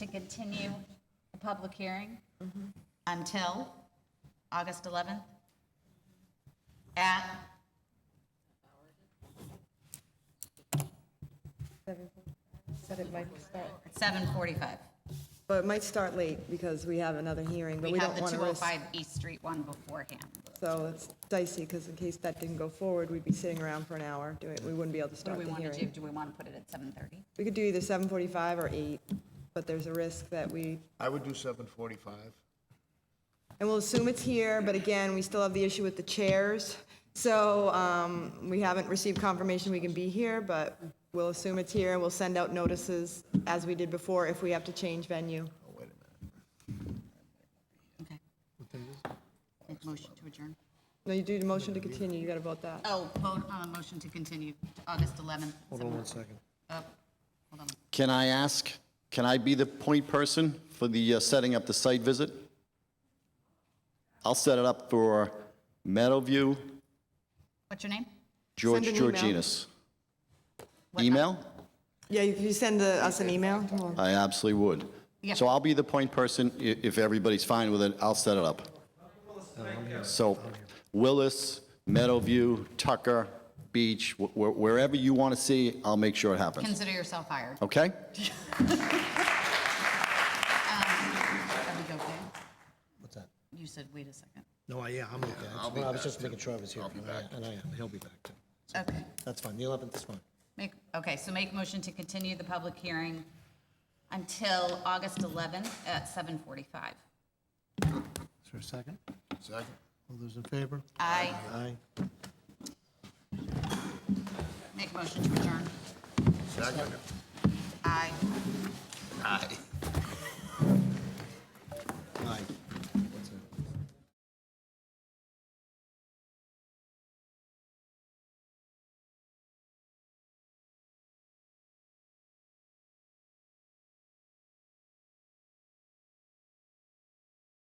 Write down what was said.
continue the public hearing Mm-hmm. until August 11th at, Said it might start. at 7:45. But it might start late because we have another hearing, but We we have don't the want to risk. 205 East Street one beforehand. So it's dicey because in case that didn't go forward, we'd be sitting around for an hour doing, we wouldn't be able to What do start we the want to do? hearing. Do we want to put it at 7:30? We could do either 7:45 or 8, but there's a risk that we, I would do seven forty-five. and we'll assume it's here, but again, we still have the issue with the chairs. So um, we haven't received confirmation we can be here, but we'll assume it's here and we'll send out notices as we did before if we have to change venue. Oh, wait a minute. Okay. Make Motion to adjourn. No, you do the motion to continue, you got to vote that. Oh, vote on the motion to continue to August 11th. Hold on one second. Oh, Hold on. Can I ask, can I be the point person for the uh, setting up the site visit? I'll set it up for Meadowview, What's your name? George Send an email. Georginas. What- Email? Yeah, if you send uh, us an email, we'll- I absolutely would. Yeah. So I'll be the point person. I- If everybody's fine with it, I'll set it up. So Willis, Meadowview, Tucker, Beach, wh- wh- wherever you want to see, I'll make sure it happens. Consider yourself hired. Okay? Are we okay? What's that? You said, wait a second. No, I, yeah, I'm okay. That's- well, I was just making sure I was here. and I- And I am, he'll be back too. Okay. That's fine, the 11th is fine. Make, okay, so make motion to continue the public hearing until August 11th at 7:45. Is there a second? Second? All those in favor? I Aye. make motion to adjourn. Second? Aye. Aye.